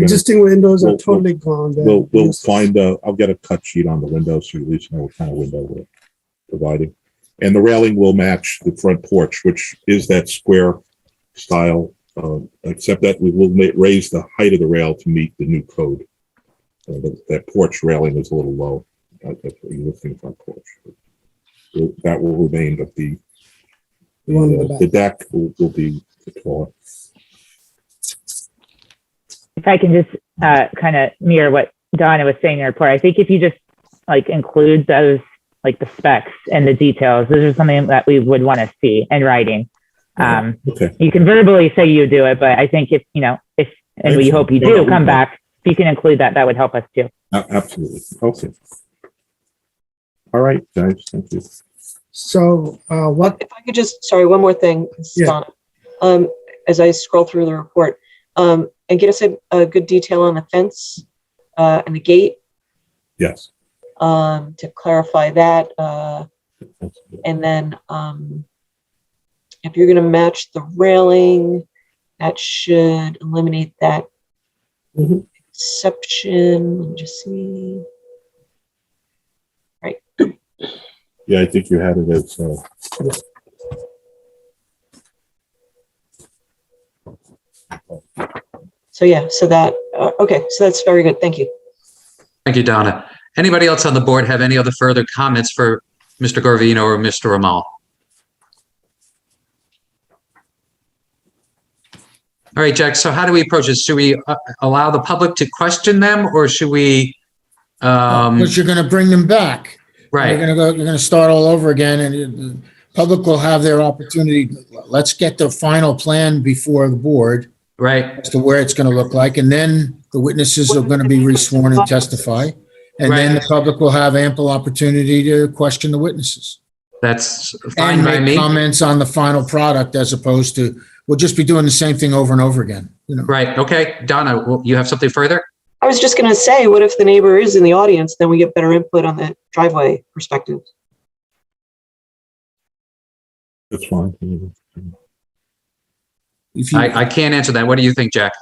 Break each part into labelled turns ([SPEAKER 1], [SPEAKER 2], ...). [SPEAKER 1] Existing windows are
[SPEAKER 2] We'll-
[SPEAKER 1] totally gone. They're
[SPEAKER 2] We'll, we'll
[SPEAKER 1] useless.
[SPEAKER 2] find, uh, I'll get a cut sheet on the windows, so you at least know what kind of window we're providing. And the railing will match the front porch, which is that square style, uh, except that we will ma- raise the height of the rail to meet the new code. Uh, that, that porch railing is a little low, uh, that's the existing front porch. Will- That will remain, but the
[SPEAKER 1] The one in the back.
[SPEAKER 2] the deck will, will be taller.
[SPEAKER 3] if I can just uh, kind of mirror what Donna was saying in her report, I think if you just like include those like the specs and the details, this is something that we would want to see in writing. Um,
[SPEAKER 2] Okay,
[SPEAKER 3] you can verbally say you do it, but I think if you know if and we hope you do come back, if you can include that, that would help us too.
[SPEAKER 2] a- Uh, absolutely, okay. All right, guys, thank you.
[SPEAKER 1] So, uh, what,
[SPEAKER 4] If I could just, sorry, one more thing. this is
[SPEAKER 1] Yeah.
[SPEAKER 4] Donna. Um, as I scroll through the report, um, and get us a, a good detail on the fence, uh, and the gate,
[SPEAKER 2] Yes.
[SPEAKER 4] um, to clarify that, uh, and then, um, if you're gonna match the railing, that should eliminate that
[SPEAKER 1] Mhm.
[SPEAKER 4] exception, let me just see.
[SPEAKER 2] Yeah, I think you had it as, uh,
[SPEAKER 4] So, yeah, so that, uh, okay, so that's very good, thank you.
[SPEAKER 5] Thank you, Donna. Anybody else on the board have any other further comments for Mr. Gorvino or Mr. Ramal? All right, Jack, so how do we approach this? Should we uh, allow the public to question them or should we? um,
[SPEAKER 6] But you're gonna bring them back. You're
[SPEAKER 5] Right,
[SPEAKER 6] gonna go, you're gonna start all over again and it- the public will have their opportunity. Let's get the final plan before the board
[SPEAKER 5] right,
[SPEAKER 6] as to where it's gonna look like. And then the witnesses are gonna be resworn and testify. And then the public will have ample opportunity to question the witnesses.
[SPEAKER 5] that's fine
[SPEAKER 6] And
[SPEAKER 5] by
[SPEAKER 6] make
[SPEAKER 5] me.
[SPEAKER 6] comments on the final product as opposed to, we'll just be doing the same thing over and over again, you know?
[SPEAKER 5] Right, okay. Donna, w- you have something further?
[SPEAKER 4] I was just gonna say, what if the neighbor is in the audience, then we get better input on the driveway perspective.
[SPEAKER 2] that's fine.
[SPEAKER 6] If you, if
[SPEAKER 5] I, I can't answer that. What do you think, Jack?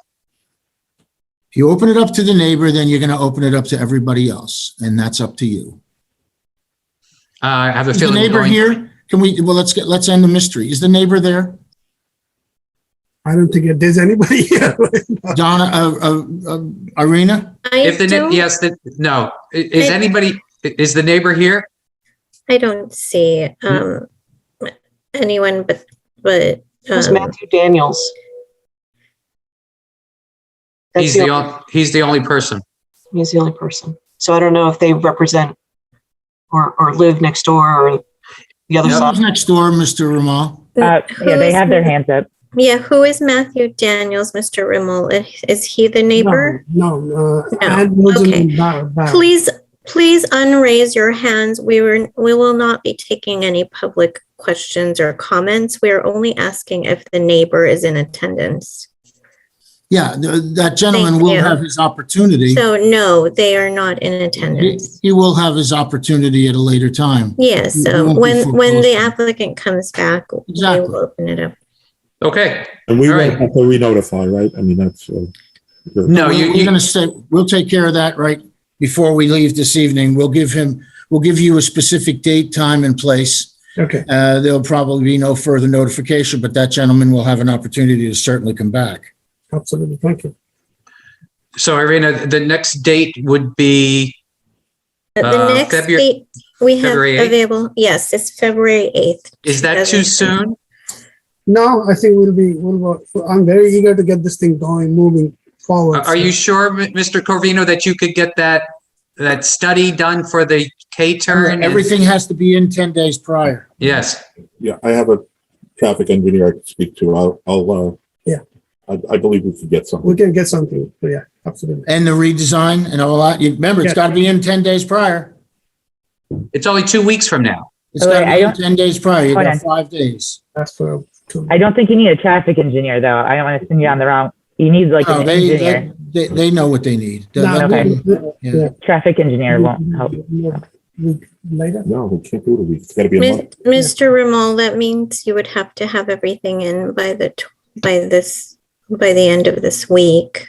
[SPEAKER 6] you open it up to the neighbor, then you're gonna open it up to everybody else. And that's up to you.
[SPEAKER 5] Uh, I have a
[SPEAKER 6] Is the
[SPEAKER 5] feeling. we're
[SPEAKER 6] neighbor
[SPEAKER 5] going-
[SPEAKER 6] here? Can we, well, let's get, let's end the mystery. Is the neighbor there?
[SPEAKER 1] I don't think it- there's anybody here.
[SPEAKER 6] Donna, uh, uh, uh, Irina?
[SPEAKER 7] I
[SPEAKER 5] If the,
[SPEAKER 7] don't,
[SPEAKER 5] ne- yes, the- no. I- Is
[SPEAKER 7] I-
[SPEAKER 5] anybody, i- is the neighbor here?
[SPEAKER 7] I don't see um, anyone but but
[SPEAKER 4] It was
[SPEAKER 7] um,
[SPEAKER 4] Matthew Daniels. That's
[SPEAKER 5] He's the, on- he's the only person.
[SPEAKER 4] He's the only person. So I don't know if they represent or, or live next door or the other
[SPEAKER 5] Yep.
[SPEAKER 4] side.
[SPEAKER 6] Who's next door, Mr. Ramal?
[SPEAKER 3] Uh, yeah, they
[SPEAKER 7] who's-
[SPEAKER 3] have their hands up.
[SPEAKER 7] Yeah, who is Matthew Daniels, Mr. Rimmel? Is, is he the neighbor?
[SPEAKER 1] No, no, uh,
[SPEAKER 7] No,
[SPEAKER 1] and was
[SPEAKER 7] okay.
[SPEAKER 1] in the back.
[SPEAKER 7] Please, please unraise your hands. We were we will not be taking any public questions or comments. We are only asking if the neighbor is in attendance.
[SPEAKER 6] Yeah, th- that gentleman
[SPEAKER 7] Thank
[SPEAKER 6] will
[SPEAKER 7] you.
[SPEAKER 6] have his opportunity.
[SPEAKER 7] So no, they are not in
[SPEAKER 6] He
[SPEAKER 7] attendance.
[SPEAKER 6] he will have his opportunity at a later time.
[SPEAKER 7] Yeah,
[SPEAKER 6] we won't
[SPEAKER 7] so
[SPEAKER 6] be
[SPEAKER 7] when when the
[SPEAKER 6] foreclosing.
[SPEAKER 7] applicant comes back, we
[SPEAKER 6] Exactly.
[SPEAKER 7] will open it up.
[SPEAKER 5] Okay.
[SPEAKER 2] And we
[SPEAKER 5] All
[SPEAKER 2] will
[SPEAKER 5] right.
[SPEAKER 2] have to re-notify, right? I mean, that's, uh,
[SPEAKER 5] No,
[SPEAKER 6] We're-
[SPEAKER 5] you,
[SPEAKER 6] We're
[SPEAKER 5] you,
[SPEAKER 6] gonna stay, we'll take care of that right before we leave this evening. We'll give him, we'll give you a specific date, time and place.
[SPEAKER 1] Okay,
[SPEAKER 6] Uh, there'll probably be no further notification, but that gentleman will have an opportunity to certainly come back.
[SPEAKER 1] absolutely. Thank you.
[SPEAKER 5] so Irina, the next date would be,
[SPEAKER 7] But
[SPEAKER 5] Uh,
[SPEAKER 7] the next
[SPEAKER 5] Februar-
[SPEAKER 7] date we have
[SPEAKER 5] February 8th?
[SPEAKER 7] available, yes, it's February 8th.
[SPEAKER 5] is that too
[SPEAKER 7] 2020.
[SPEAKER 5] soon?
[SPEAKER 1] No, I think we'll be, we'll, work- I'm very eager to get this thing going, moving forward.
[SPEAKER 5] Are are you sure, M- Mr. Corvino, that you could get that, that study done for the K-turn? and-
[SPEAKER 6] Everything has to be in 10 days prior.
[SPEAKER 5] Yes,
[SPEAKER 2] yeah, I have a traffic engineer I can speak to. I'll, I'll, uh,
[SPEAKER 1] Yeah.
[SPEAKER 2] I, I believe we could get
[SPEAKER 1] We
[SPEAKER 2] something.
[SPEAKER 1] can get something. Yeah, absolutely.
[SPEAKER 6] And the redesign and all that. You Remember, it's
[SPEAKER 1] Yeah.
[SPEAKER 6] got to be in 10 days prior.
[SPEAKER 5] it's only two weeks from now.
[SPEAKER 6] It's
[SPEAKER 3] Oh, Wait,
[SPEAKER 6] got to
[SPEAKER 3] I
[SPEAKER 6] be in
[SPEAKER 3] don't-
[SPEAKER 6] 10 days prior. You
[SPEAKER 3] Hold
[SPEAKER 6] got
[SPEAKER 3] on.
[SPEAKER 6] five days.
[SPEAKER 1] That's for, to-
[SPEAKER 3] I don't think you need a traffic engineer though. I don't want to send you on the wrong. You need like
[SPEAKER 6] No,
[SPEAKER 3] an
[SPEAKER 6] Oh, they,
[SPEAKER 3] engineer.
[SPEAKER 6] they, they- they know what they need. The-
[SPEAKER 1] No,
[SPEAKER 6] the-
[SPEAKER 3] Okay.
[SPEAKER 1] we-
[SPEAKER 6] yeah.
[SPEAKER 1] yeah.
[SPEAKER 3] Traffic engineer won't help.
[SPEAKER 1] we- Later.
[SPEAKER 2] No, we can't do it. a week. It's gotta be a
[SPEAKER 7] Mis-
[SPEAKER 2] month.
[SPEAKER 7] Mr. Ramal, that means you would have to have everything in by the, tw- by this, by the end of this week.